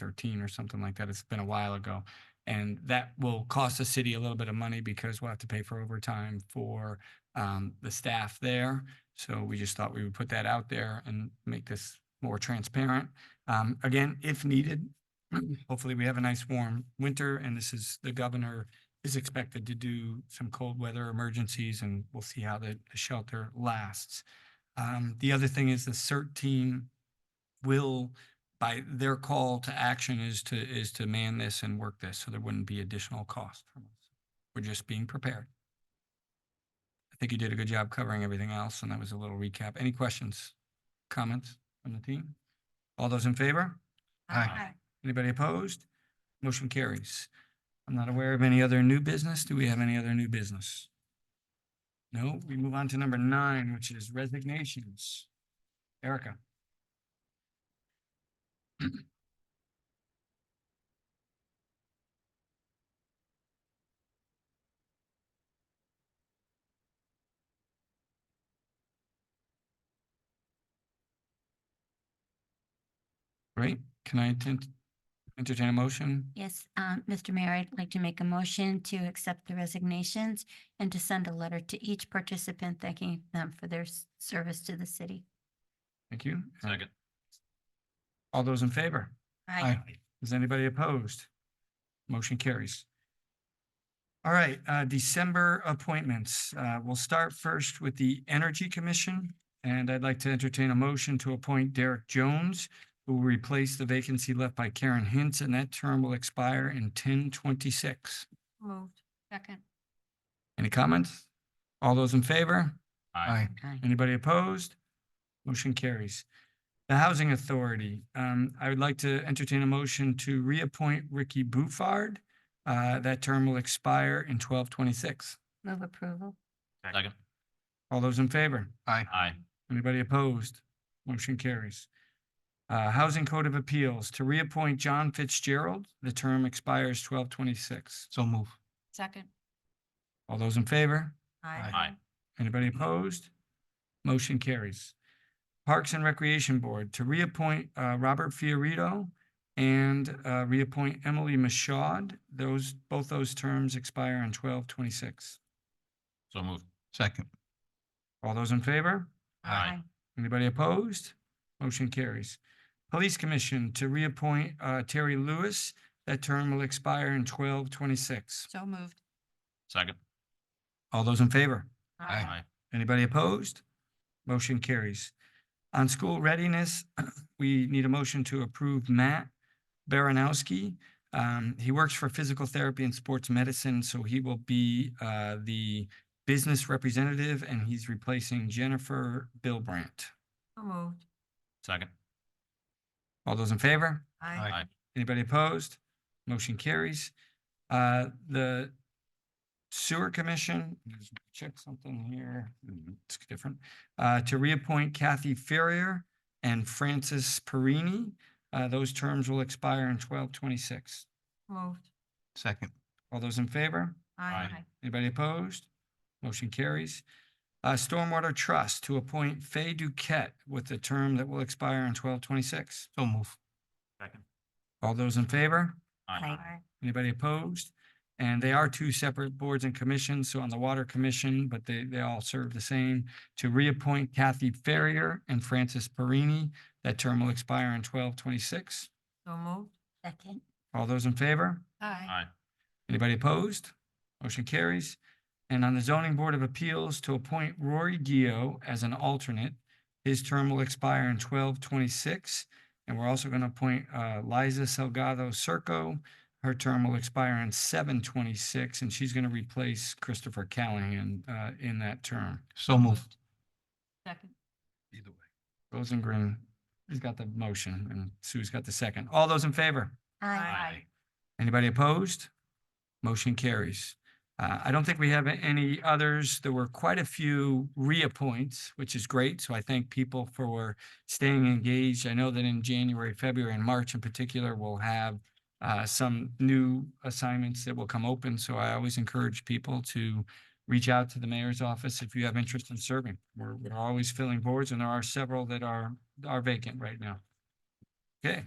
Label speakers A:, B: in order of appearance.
A: thirteen or something like that. It's been a while ago. And that will cost the city a little bit of money because we'll have to pay for overtime for um the staff there. So we just thought we would put that out there and make this more transparent. Um, again, if needed, hopefully we have a nice warm winter and this is, the governor is expected to do some cold weather emergencies and we'll see how the the shelter lasts. Um, the other thing is the CERT team will, by their call to action is to, is to man this and work this, so there wouldn't be additional cost from us. We're just being prepared. I think you did a good job covering everything else, and that was a little recap. Any questions, comments from the team? All those in favor? Aye. Anybody opposed? Motion carries. I'm not aware of any other new business. Do we have any other new business? No, we move on to number nine, which is resignations. Erica. Great. Can I tent- entertain a motion?
B: Yes, um, Mr. Mayor, I'd like to make a motion to accept the resignations and to send a letter to each participant thanking them for their s- service to the city.
A: Thank you. Second. All those in favor?
B: Aye.
A: Is anybody opposed? Motion carries. All right, uh, December appointments. Uh, we'll start first with the Energy Commission. And I'd like to entertain a motion to appoint Derek Jones, who will replace the vacancy left by Karen Hintz, and that term will expire in ten twenty-six.
B: Moved. Second.
A: Any comments? All those in favor? Aye.
B: Aye.
A: Anybody opposed? Motion carries. The Housing Authority, um, I would like to entertain a motion to reappoint Ricky Bufard. Uh, that term will expire in twelve twenty-six.
B: Move approval.
C: Second.
A: All those in favor? Aye.
C: Aye.
A: Anybody opposed? Motion carries. Uh, Housing Code of Appeals, to reappoint John Fitzgerald, the term expires twelve twenty-six. So move.
B: Second.
A: All those in favor?
C: Aye. Aye.
A: Anybody opposed? Motion carries. Parks and Recreation Board to reappoint uh, Robert Fiorito and uh, reappoint Emily Mashaud. Those, both those terms expire on twelve twenty-six.
C: So moved.
D: Second.
A: All those in favor?
C: Aye.
A: Anybody opposed? Motion carries. Police Commission to reappoint uh, Terry Lewis. That term will expire in twelve twenty-six.
B: So moved.
C: Second.
A: All those in favor?
D: Aye.
A: Anybody opposed? Motion carries. On school readiness, we need a motion to approve Matt Baranowski. Um, he works for physical therapy and sports medicine, so he will be, uh, the business representative and he's replacing Jennifer Billbrandt.
B: So moved.
C: Second.
A: All those in favor?
D: Aye.
A: Anybody opposed? Motion carries. Uh, the Sewer Commission, let's check something here, Mm, it's different, uh, to reappoint Kathy Ferrier and Francis Perini. Uh, those terms will expire in twelve twenty-six.
B: Moved.
D: Second.
A: All those in favor?
C: Aye.
A: Anybody opposed? Motion carries. Uh, Stormwater Trust to appoint Fay Duquette with a term that will expire in twelve twenty-six.
D: So move.
C: Second.
A: All those in favor?
C: Aye.
A: Anybody opposed? And they are two separate boards and commissions, so on the Water Commission, but they, they all serve the same. To reappoint Kathy Ferrier and Francis Perini, that term will expire in twelve twenty-six.
B: So moved. Second.
A: All those in favor?
B: Aye.
C: Aye.
A: Anybody opposed? Motion carries. And on the Zoning Board of Appeals, to appoint Rory Gio as an alternate. His term will expire in twelve twenty-six. And we're also going to appoint uh, Liza Salgado Circo. Her term will expire in seven twenty-six, and she's going to replace Christopher Callahan uh, in that term.
D: So move.
B: Second.
D: Either way.
A: Rosengreen has got the motion, and Sue's got the second. All those in favor?
B: Aye.
A: Anybody opposed? Motion carries. Uh, I don't think we have a- any others. There were quite a few reappoints, which is great. So I thank people for staying engaged. I know that in January, February and March in particular, we'll have uh, some new assignments that will come open. So I always encourage people to reach out to the mayor's office if you have interest in serving. We're, we're always filling boards and there are several that are, are vacant right now. Okay,